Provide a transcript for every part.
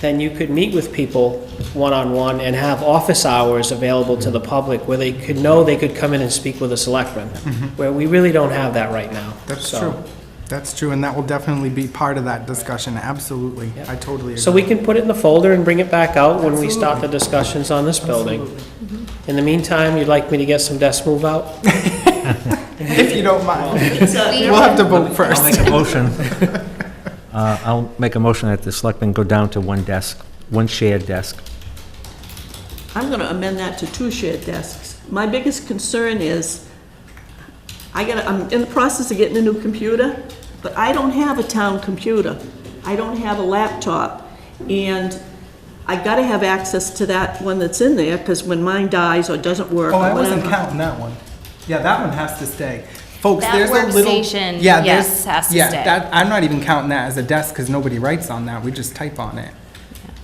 then you could meet with people one-on-one and have office hours available to the public where they could know they could come in and speak with a selectman, where we really don't have that right now. Mm-hmm. That's So- true. That's true, and that will definitely be part of that discussion, absolutely. I totally So we agree. can put it in the folder and bring it back out when we start the discussions on this building. In the meantime, you'd like me to get some desk move out? If you don't mind, We- we'll have to vote I'll first. make a motion. Uh, I'll make a motion that the selectmen go down to one desk, one shared desk. I'm going to amend that to two shared desks. My biggest concern is, I got, I'm in the process of getting a new computer, but I don't have a town computer. I don't have a laptop, and I got to have access to that one that's in there, because when mine dies or doesn't work Oh, I or wasn't whatever. counting that one. Yeah, that one has to stay. Folks, That there's a little. workstation, yeah, there's- yes, has to yeah, stay. that- I'm not even counting that as a desk, because nobody writes on that, we just type on it.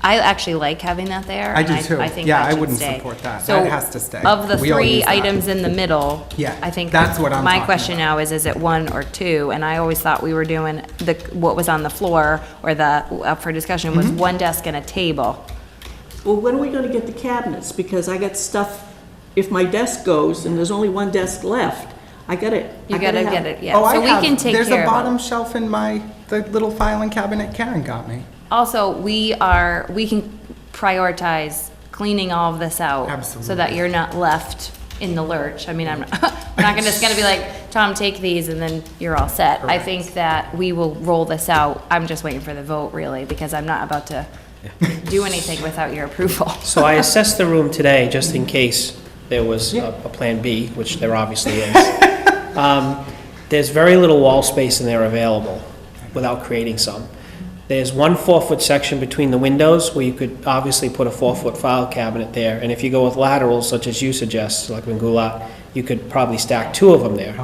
I actually like having that there. I do and too. think Yeah, that I should wouldn't stay. support that. So That has to stay. Of the We all use three that. items in the middle. Yeah, I think. that's what I'm My talking question about. now is, is it one or two? And I always thought we were doing the, what was on the floor or the, up for discussion Mm-hmm. was one desk and a table. Well, when are we going to get the cabinets? Because I got stuff, if my desk goes and there's only one desk left, I got it. You gotta get it, yeah. Oh, I So we have- can take There's care a of all- bottom shelf in my, the little filing cabinet Karen got me. Also, we are, we can prioritize cleaning all of this out. So that Absolutely. you're not left in the lurch. I mean, I'm not, I'm not gonna, just gonna be like, Tom, take these and then you're all set. I think that we will roll this out. I'm just waiting for the vote really, because I'm not about to do anything without your approval. So I assessed the room today, just in case there was a a Plan B, which there obviously is. Um, There's very little wall space in there available, without creating some. There's one four-foot section between the windows, where you could obviously put a four-foot file cabinet there, and if you go with laterals, such as you suggest, Selectman Goulart, you could probably stack two of them there.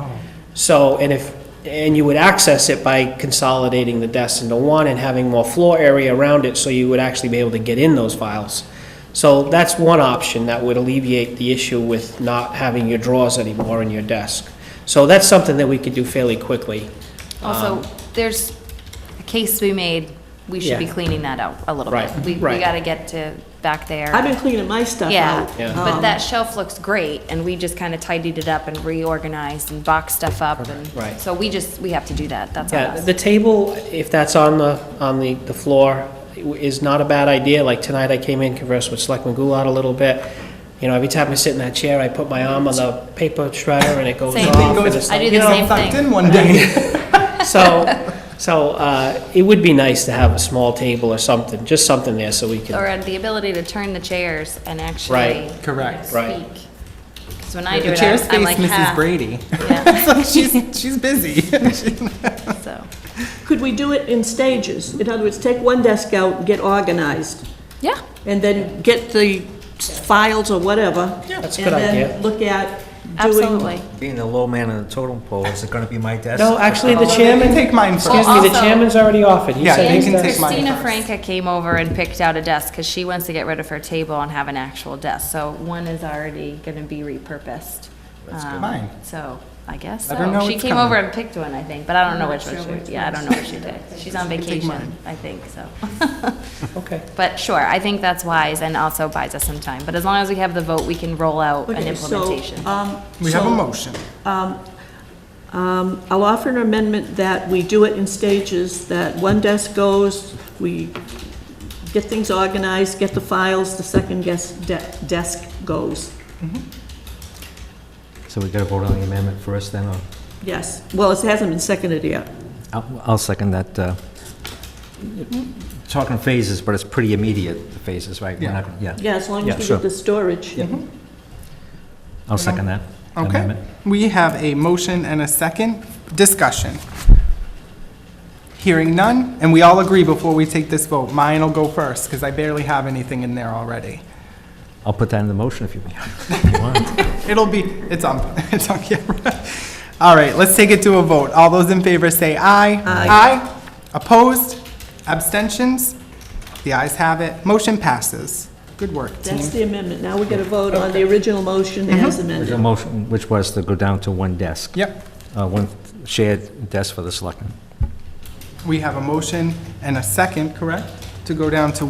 So, and if, and you would access it by consolidating the desks into one and having more floor area around it, so you would actually be able to get in those files. So that's one option that would alleviate the issue with not having your drawers anymore in your desk. So that's something that we could do fairly quickly. Um, Also, there's a case to be made. We should be Yeah. cleaning that out a little bit. Right, We, we right. gotta get to back there. I've been cleaning my stuff Yeah, out. Um, Yeah. but Um, that shelf looks great, and we just kind of tidied it up and reorganized and boxed stuff up, and. Right. So we just, we have to do that, that's on Yeah, us. the table, if that's on the, on the, the floor, is not a bad idea. Like tonight, I came in, conversed with Selectman Goulart a little bit. You know, every time I sit in that chair, I put my arm on the paper shredder and it goes Same. off. and Goes- it's I like- do You the know, same Tucked thing. in one day. So, so uh, it would be nice to have a small table or something, just something there so we Or can, uh, the ability to turn the chairs and actually. Right. Correct. Right. Speak. Because when I do The it, I'm- chair I'm space, like "Ah." Mrs. half. Brady. Yeah, So she's, she's busy. so, Could we do it in stages? In other words, take one desk out and get organized, yeah, and then get the files or whatever. That's a good And idea. then look at doing, absolutely. Being the low man on the totem pole, is it gonna be my desk? no, actually, the Chairman, chairman, Uh, take mine first. excuse me, the Also- chairman's already offered. He Yeah, said they he's can done- take mine Christina first. Franca came over and picked out a desk, because she wants to get rid of her table and have an actual desk, so one is already gonna be repurposed. That's good. Fine. So, I guess Let her know so. She it's came over coming. and picked one, I think, but I don't know which one she, yeah, I don't know what she did. She's on vacation, I think, so. Okay. But sure, I think that's wise and also buys us some time, but as long as we have the vote, we can roll out an okay, so, implementation. um, We have a so, motion. um, I'll offer an amendment that we do it in stages, that one desk goes, we get things organized, get the files, the second desk, de- desk goes. So we gotta vote on the amendment first, then, or? Yes, well, it hasn't been seconded yet. I'll, I'll second that. uh, Talking phases, but it's pretty immediate, the phases, right? We're Yeah. not gonna- Yeah, Yeah, as long Yeah, as we sure. get the storage. I'll second that Okay. amendment. We have a motion and a second. Discussion. Hearing none, and we all agree before we take this vote, mine will go first, because I barely have anything in there already. I'll put that in the motion if you if you want. It'll be, it's on, it's on camera. All right, let's take it to a vote. All those in favor say aye. Aye. Opposed? Abstentions? The ayes have it. Motion passes. Good work, That's team. the amendment. Now we got to vote on the original motion as The amended. motion, which was to go down to one desk. Yep, Uh, One shared desk for the selectmen. we have a motion and a second, correct? To go down to